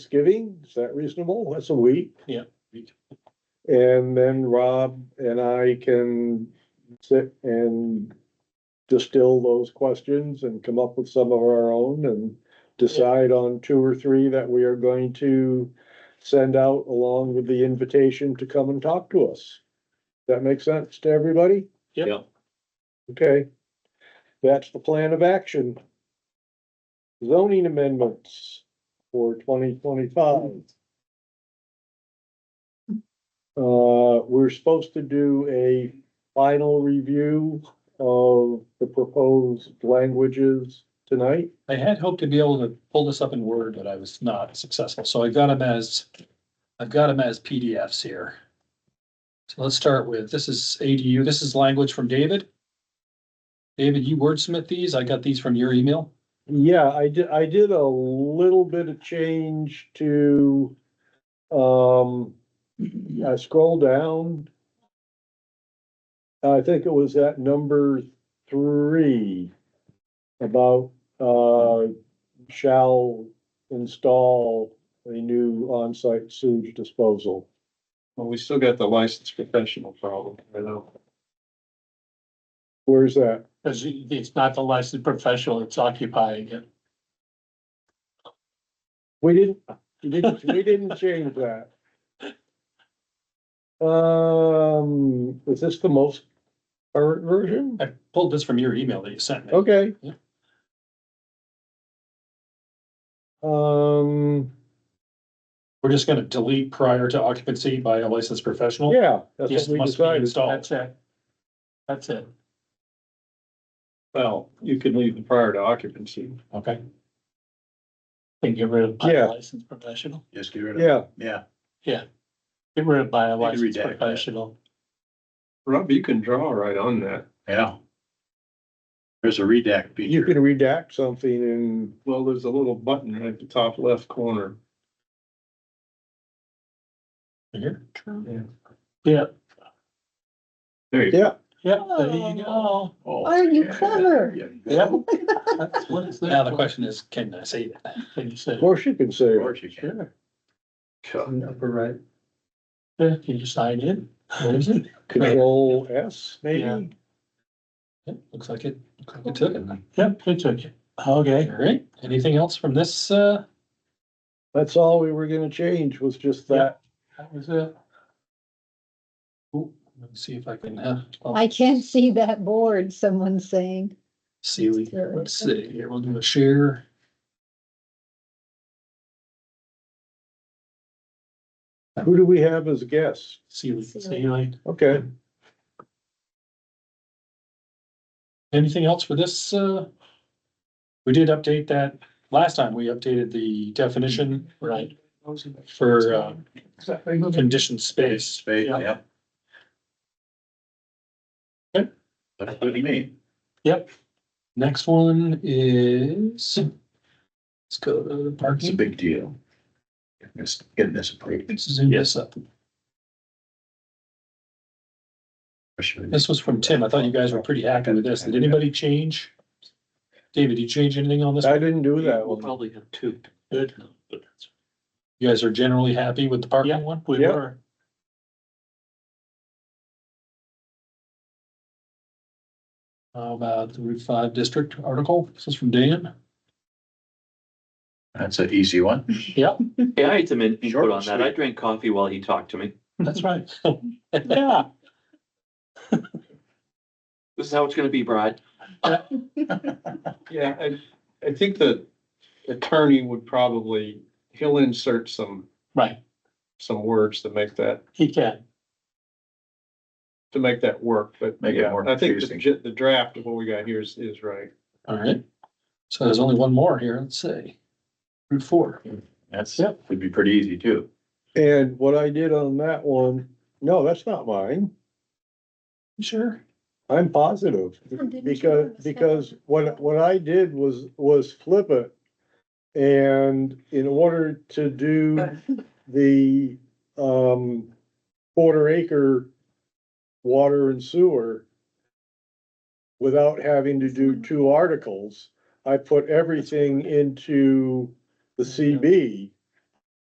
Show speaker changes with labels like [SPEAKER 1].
[SPEAKER 1] Thanksgiving, is that reasonable? That's a week.
[SPEAKER 2] Yeah.
[SPEAKER 1] And then Rob and I can sit and distill those questions and come up with some of our own and decide on two or three that we are going to send out along with the invitation to come and talk to us. That makes sense to everybody?
[SPEAKER 2] Yep.
[SPEAKER 3] Yep.
[SPEAKER 1] Okay. That's the plan of action. Zoning amendments for twenty twenty-five. Uh, we're supposed to do a final review of the proposed languages tonight.
[SPEAKER 2] I had hoped to be able to pull this up in Word, but I was not successful, so I got them as, I've got them as PDFs here. So let's start with, this is ADU, this is language from David. David, you wordsmith these, I got these from your email.
[SPEAKER 1] Yeah, I did, I did a little bit of change to, um, I scroll down. I think it was at number three about, uh, shall install a new on-site sewage disposal.
[SPEAKER 3] Well, we still got the licensed professional problem, you know.
[SPEAKER 1] Where's that?
[SPEAKER 2] Cause it's not the licensed professional, it's occupying it.
[SPEAKER 1] We didn't, we didn't, we didn't change that. Um, is this the most current version?
[SPEAKER 2] I pulled this from your email that you sent me.
[SPEAKER 1] Okay.
[SPEAKER 2] Yeah.
[SPEAKER 1] Um,
[SPEAKER 2] We're just gonna delete prior to occupancy by a licensed professional.
[SPEAKER 1] yeah, that's
[SPEAKER 2] Yes,
[SPEAKER 1] what we
[SPEAKER 2] must be
[SPEAKER 1] decided.
[SPEAKER 2] installed.
[SPEAKER 4] it. That's it.
[SPEAKER 3] Well, you can leave the prior to occupancy.
[SPEAKER 2] Okay,
[SPEAKER 4] Then get rid of by
[SPEAKER 1] Yeah.
[SPEAKER 4] a licensed professional.
[SPEAKER 3] Just get rid
[SPEAKER 1] Yeah,
[SPEAKER 3] yeah.
[SPEAKER 4] Get rid of by a
[SPEAKER 3] You can
[SPEAKER 4] licensed
[SPEAKER 3] redact that.
[SPEAKER 4] professional.
[SPEAKER 3] Rob, you can draw right on that. Yeah. There's a redact
[SPEAKER 1] you can redact something and
[SPEAKER 3] Well, there's a little button right at the top left corner.
[SPEAKER 2] here,
[SPEAKER 4] Yeah,
[SPEAKER 3] There you go.
[SPEAKER 1] yeah,
[SPEAKER 4] yeah, there you go.
[SPEAKER 3] Oh, you clever?
[SPEAKER 4] Yeah. What is that?
[SPEAKER 2] now the question is, can I say that?
[SPEAKER 4] Can you say,
[SPEAKER 1] of course you can say, it.
[SPEAKER 3] you can.
[SPEAKER 4] upper right? Yeah, can you sign in? Where is it?
[SPEAKER 1] control S
[SPEAKER 4] Yeah.
[SPEAKER 1] maybe?
[SPEAKER 2] Yep, looks like it, looks like it took it.
[SPEAKER 4] Yep, it took it. Okay,
[SPEAKER 2] All right, anything else from this, uh,
[SPEAKER 1] That's all we were gonna change was just that.
[SPEAKER 4] that was it.
[SPEAKER 2] ooh, let me see if I can, uh,
[SPEAKER 5] I can't see that board, someone's saying.
[SPEAKER 2] see, we-
[SPEAKER 5] Sure.
[SPEAKER 2] let's see, here, we'll do a share.
[SPEAKER 1] Who do we have as guests?
[SPEAKER 2] See, we-
[SPEAKER 4] Ceiling.
[SPEAKER 1] Okay,
[SPEAKER 2] anything else for this, uh? We did update that, last time we updated the definition
[SPEAKER 4] Right.
[SPEAKER 2] for, uh,
[SPEAKER 4] Can-
[SPEAKER 2] conditioned space.
[SPEAKER 3] Space,
[SPEAKER 4] Yeah.
[SPEAKER 3] yep.
[SPEAKER 2] Okay.
[SPEAKER 3] That's what you mean.
[SPEAKER 2] Next one is, let's go to the parking.
[SPEAKER 3] big deal. Getting this approved.
[SPEAKER 2] Let's Zoom this up. This was from Tim. I thought you guys were pretty happy with this. Did anybody change? David, did you change anything on this?
[SPEAKER 1] I didn't do that
[SPEAKER 4] We'll
[SPEAKER 1] one.
[SPEAKER 4] probably have two. Good.
[SPEAKER 2] You guys are generally happy with the
[SPEAKER 4] Yeah,
[SPEAKER 2] parking one?
[SPEAKER 4] we
[SPEAKER 1] Yeah.
[SPEAKER 4] were.
[SPEAKER 2] How about the Route Five District article? This is from Dan.
[SPEAKER 3] That's an easy one.
[SPEAKER 2] Yep,
[SPEAKER 6] Yeah, I had some in- input
[SPEAKER 3] Short and
[SPEAKER 6] on that. I
[SPEAKER 3] sweet.
[SPEAKER 6] drank coffee while he talked to me.
[SPEAKER 2] that's right.
[SPEAKER 4] Yeah,
[SPEAKER 6] This is how it's gonna be, Brad.
[SPEAKER 3] Yeah, I, I think the attorney would probably, he'll insert some,
[SPEAKER 4] right.
[SPEAKER 3] some words to make that,
[SPEAKER 4] He can.
[SPEAKER 3] to make that work, but
[SPEAKER 7] Make it
[SPEAKER 3] yeah,
[SPEAKER 7] more
[SPEAKER 3] I think the,
[SPEAKER 7] confusing.
[SPEAKER 3] j- the draft of what we got here is, is right.
[SPEAKER 2] All right. So there's only one more here. Let's see. Route Four.
[SPEAKER 7] That's,
[SPEAKER 2] Yep.
[SPEAKER 7] would be pretty easy too.
[SPEAKER 1] And what I did on that one, no, that's not mine.
[SPEAKER 2] You Sure.
[SPEAKER 1] I'm positive,
[SPEAKER 5] Oh, didn't you
[SPEAKER 1] because,
[SPEAKER 5] have a second?
[SPEAKER 1] because what, what I did was, was flip it. And in order to do the, um, quarter acre water and sewer without having to do two articles, I put everything into the CB